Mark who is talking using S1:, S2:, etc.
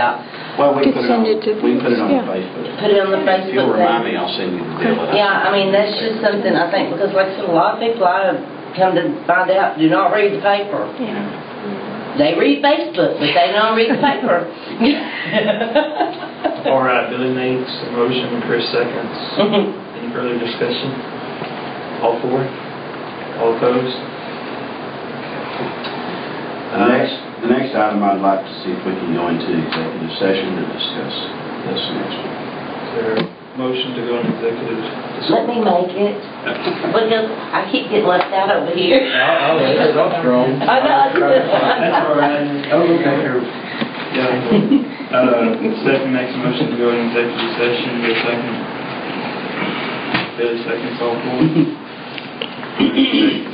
S1: yeah.
S2: Well, we
S3: Could
S2: put it on,
S3: send it to
S2: we put it on
S3: yeah.
S2: Facebook.
S1: Put it on the
S2: If you'll
S1: Facebook
S2: remind me,
S1: page.
S2: I'll send you the deal. that I-
S1: Yeah, I mean, that's just something I think, because like I said, a lot of people I have come to find out do not read the paper.
S3: Yeah.
S1: They read Facebook, but they don't read the paper.
S4: All right, Billy makes a motion, Chris seconds. Any further discussion? All for? All opposed?
S2: The next, the next item, I'd like to see if we can go into executive session to discuss this next one.
S4: Is there a motion to go into executive?
S1: Let me make it, because I keep getting left out over
S4: Oh,
S1: here.
S4: I'll, that's wrong.
S1: I know.
S4: That's all right. Oh, okay. Yeah. Uh, Stephen makes a motion to go into executive session, Bill second. Billy seconds, all for?